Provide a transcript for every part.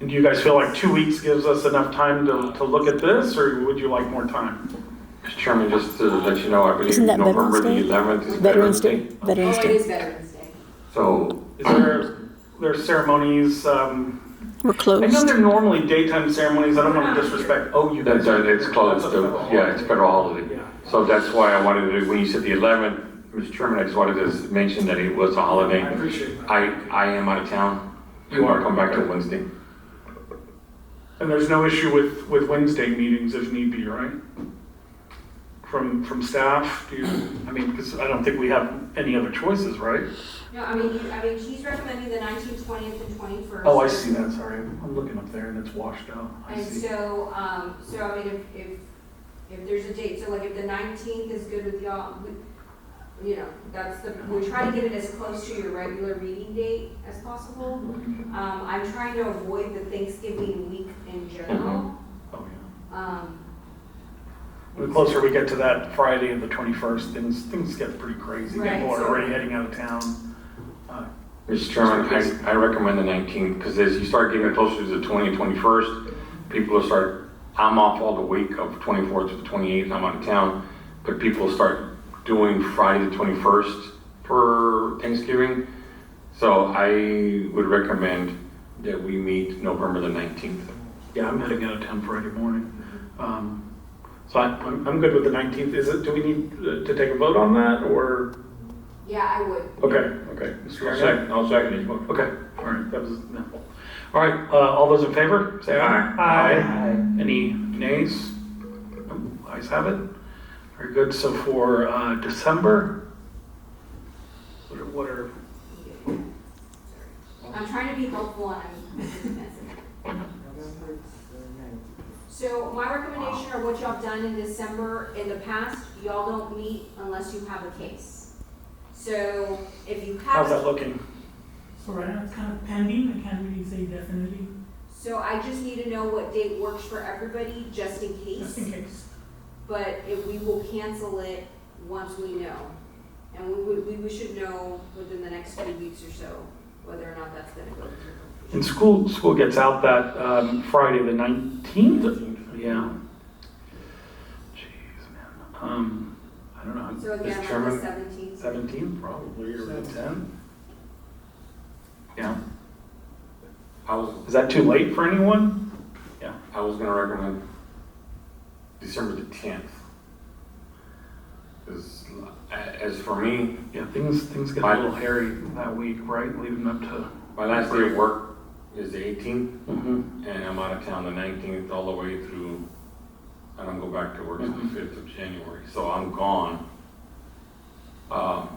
And do you guys feel like two weeks gives us enough time to, to look at this, or would you like more time? Mr. Chairman, just to let you know, I believe Isn't that November the Veterans Day? 11th is Veterans Day, Oh, Veterans it Day. is Veterans Day. So, Is there, there's ceremonies, um, We're I know closed. they're normally daytime ceremonies, I don't want to disrespect, oh, you guys. that's, uh, it's closed, That's a uh, federal yeah, it's federal holiday. Yeah. So that's why I wanted to, when you said the 11th, Mr. Chairman, I just wanted to s- mention that it was a I holiday. appreciate that. I, I am out of town. You are. I'll Come back to Wednesday. And there's no issue with, with Wednesday meetings if need be, right? From, from staff, do you, I mean, because I don't think we have any other choices, right? No, I mean, you- I mean, she's recommending the 19th, 20th, and 21st. Oh, I see that, sorry, I'm looking up there and it's washed out, I And see. so, um, so I mean, if, if, if there's a date, so like if the 19th is good with y'all, we- you know, that's the, we try to get it as close to your regular meeting date as possible. Um, I'm trying to avoid the Thanksgiving week in general. Oh, yeah. Um, The closer we get to that Friday of the 21st, things, things get pretty crazy. Right, People are so- already heading out of town. Uh, Mr. Chairman, I, I recommend the 19th, because as you start getting closer to the 20th, 21st, people will start, I'm off all the week of 24th to the 28th, I'm out of town, but people will start doing Friday the 21st for Thanksgiving. So I would recommend that we meet November the 19th. Yeah, I'm heading out of town Friday morning. Um, So I- I'm, I'm good with the 19th. Is it, do we need uh, to take a vote on that or? yeah, I would. Okay, okay. Mr. Mayor? I'll second his motion. Okay, all right, that was, no. All right, uh, all those in favor, say aye. Aye. Any nays? No, Ayes have it. Very good. So for uh, December, what are- what are, I'm trying to be helpful and I'm. So my recommendation or what y'all have done in December, in the past, y'all don't meet unless you have a case. So if you how's that have, looking? So right now it's kind of pending, I can't really say definitely, so I just need to know what date works for everybody, just in just case. in case. But if we will cancel it once we know. And we, would- we, we should know within the next few weeks or so whether or not that's gonna go through. And school, school gets out that um, Friday, the 19th? Yeah. Jeez, man. Um, I don't know. So again, Mr. on the Chairman, seventeenth. 17th probably, or the 10th? Yeah. I was, Is that too late for anyone? I was gonna recommend December the 10th. 'Cause, uh, as for me, Yeah, things, things get a Fine. little hairy that week, right? Leading up to. My last day of work is the 18th, Mhm. and I'm out of town the 19th all the way through, I don't go back to work until Mm-hmm. the 5th of January, so I'm gone um,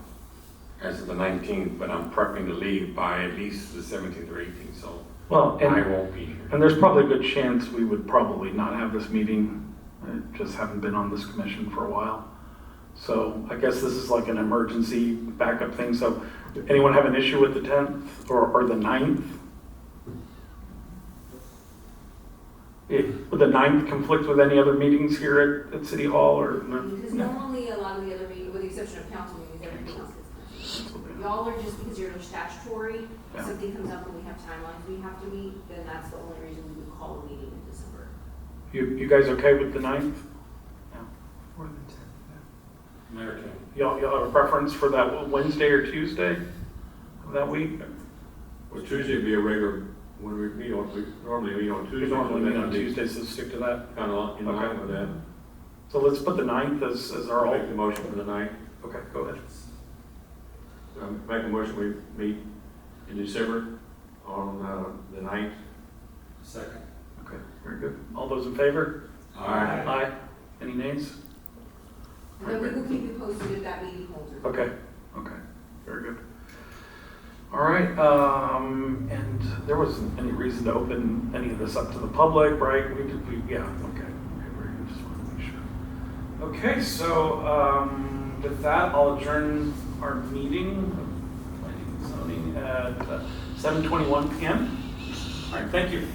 as of the 19th, but I'm prepping to leave by at least the 17th or 18th, so Well, I and, won't be here. and there's probably a good chance we would probably not have this meeting. I just haven't been on this commission for a while. So I guess this is like an emergency backup thing. So anyone have an issue with the 10th or, or the 9th? It, would the 9th conflict with any other meetings here at, at City Hall or? no? Because normally, a lot of the other meetings, with the exception of council meetings, everything else is. canceled. Y'all are just because you're under statutory, Yeah. something comes up and we have timelines we have to meet, then that's the only reason we would call a meeting in December. You, you guys okay with the 9th? American. Y'all, y'all have a preference for that Wednesday or Tuesday of that week? Well, Tuesday would be a regular, when we meet on, we normally meet on We Tuesday. normally meet on Tuesday, so stick to that. Kind of in line with that. So let's put the 9th as, as our I'll all. make the motion for the night. Okay, go ahead. Um, Make a motion, we meet in December on uh, the ninth. Second. Okay, very good. All those in favor? All right. Aye. Any nays? And then we will keep you posted if that meeting holds. or not. Okay, okay, very good. All right, um, and there wasn't any reason to open any of this up to the public, right? We did, we, yeah, okay. Okay, very good. Just wanted to make sure. Okay, so, um, with that, I'll adjourn our meeting, uh, of planning and zoning at seven twenty-one PM. All right, thank you.